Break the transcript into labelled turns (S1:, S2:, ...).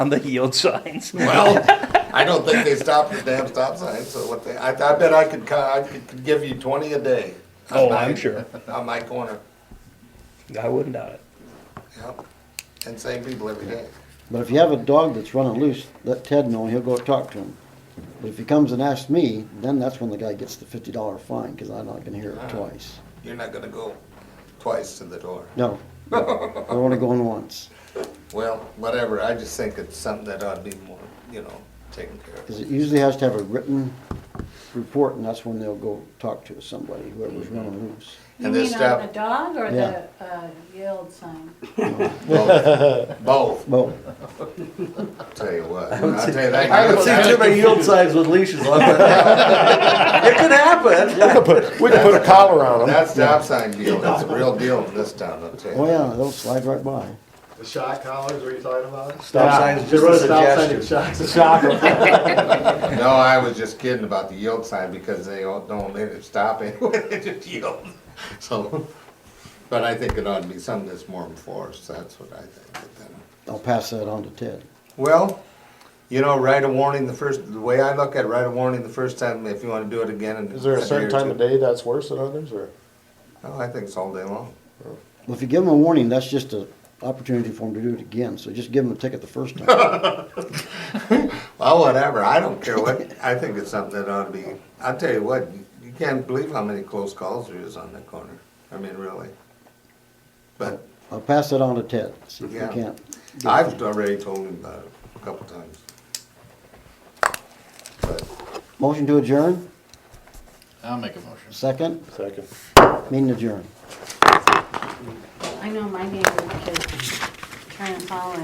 S1: on the yield signs.
S2: Well, I don't think they stopped the damn stop sign, so what they, I, I bet I could, co- I could could give you twenty a day. on
S1: Oh, I'm
S2: my-
S1: sure.
S2: On my corner,
S1: I wouldn't doubt it.
S2: yep, and same people every day.
S3: But if you have a dog that's running loose, let Ted know, he'll go talk to him. But if he comes and asks me, then that's when the guy gets the fifty dollar fine, cause I'm not gonna hear it twice.
S2: You're not gonna go twice to the door.
S3: No, no, I only going once,
S2: Well, whatever, I just think it's something that ought to be more, you know, taken care of.
S3: cause it usually has to have a written report, and that's when they'll go talk to somebody, whoever's running loose.
S4: You
S2: And they
S4: mean
S2: stop-
S4: on the dog or
S3: Yeah.
S4: the uh, yield sign?
S2: Both, both,
S3: Well,
S2: I'll tell you what, I'll tell you that.
S5: I haven't seen too many yield signs with leashes on, but it could happen.
S6: We can put a collar on them.
S2: That stop sign deal, that's a real deal in this town, I'll tell you.
S3: oh yeah, they'll slide right by.
S7: The shock collars, what are you talking about?
S5: Stop signs,
S7: Just a
S5: just a
S7: stop sign and
S5: gesture.
S7: shocks.
S2: No, I was just kidding about the yield sign because they don't don't let it stop anyway, they just yield. So, but I think it ought to be something that's more enforced, that's what I think. But then-
S3: I'll pass that on to Ted.
S2: Well, you know, write a warning the first, the way I look at it, write a warning the first time if you wanna do it again in
S6: Is there a
S2: year
S6: certain
S2: or
S6: time
S2: two.
S6: of day that's worse than others, or?
S2: No, I think it's all day long.
S3: Well, if you give them a warning, that's just an opportunity for them to do it again, so just give them a ticket the first time.
S2: Well, whatever, I don't care what, I think it's something that ought to be, I'll tell you what, you- you can't believe how many close calls there is on that corner, I mean, really. But
S3: I'll pass that on to Ted, see if he
S2: Yeah.
S3: can't.
S2: I've already told him about it a couple times. But
S3: Motion to adjourn,
S8: I'll make a motion.
S3: second,
S6: Second.
S3: meeting adjourned.
S4: I know my neighbor could try and follow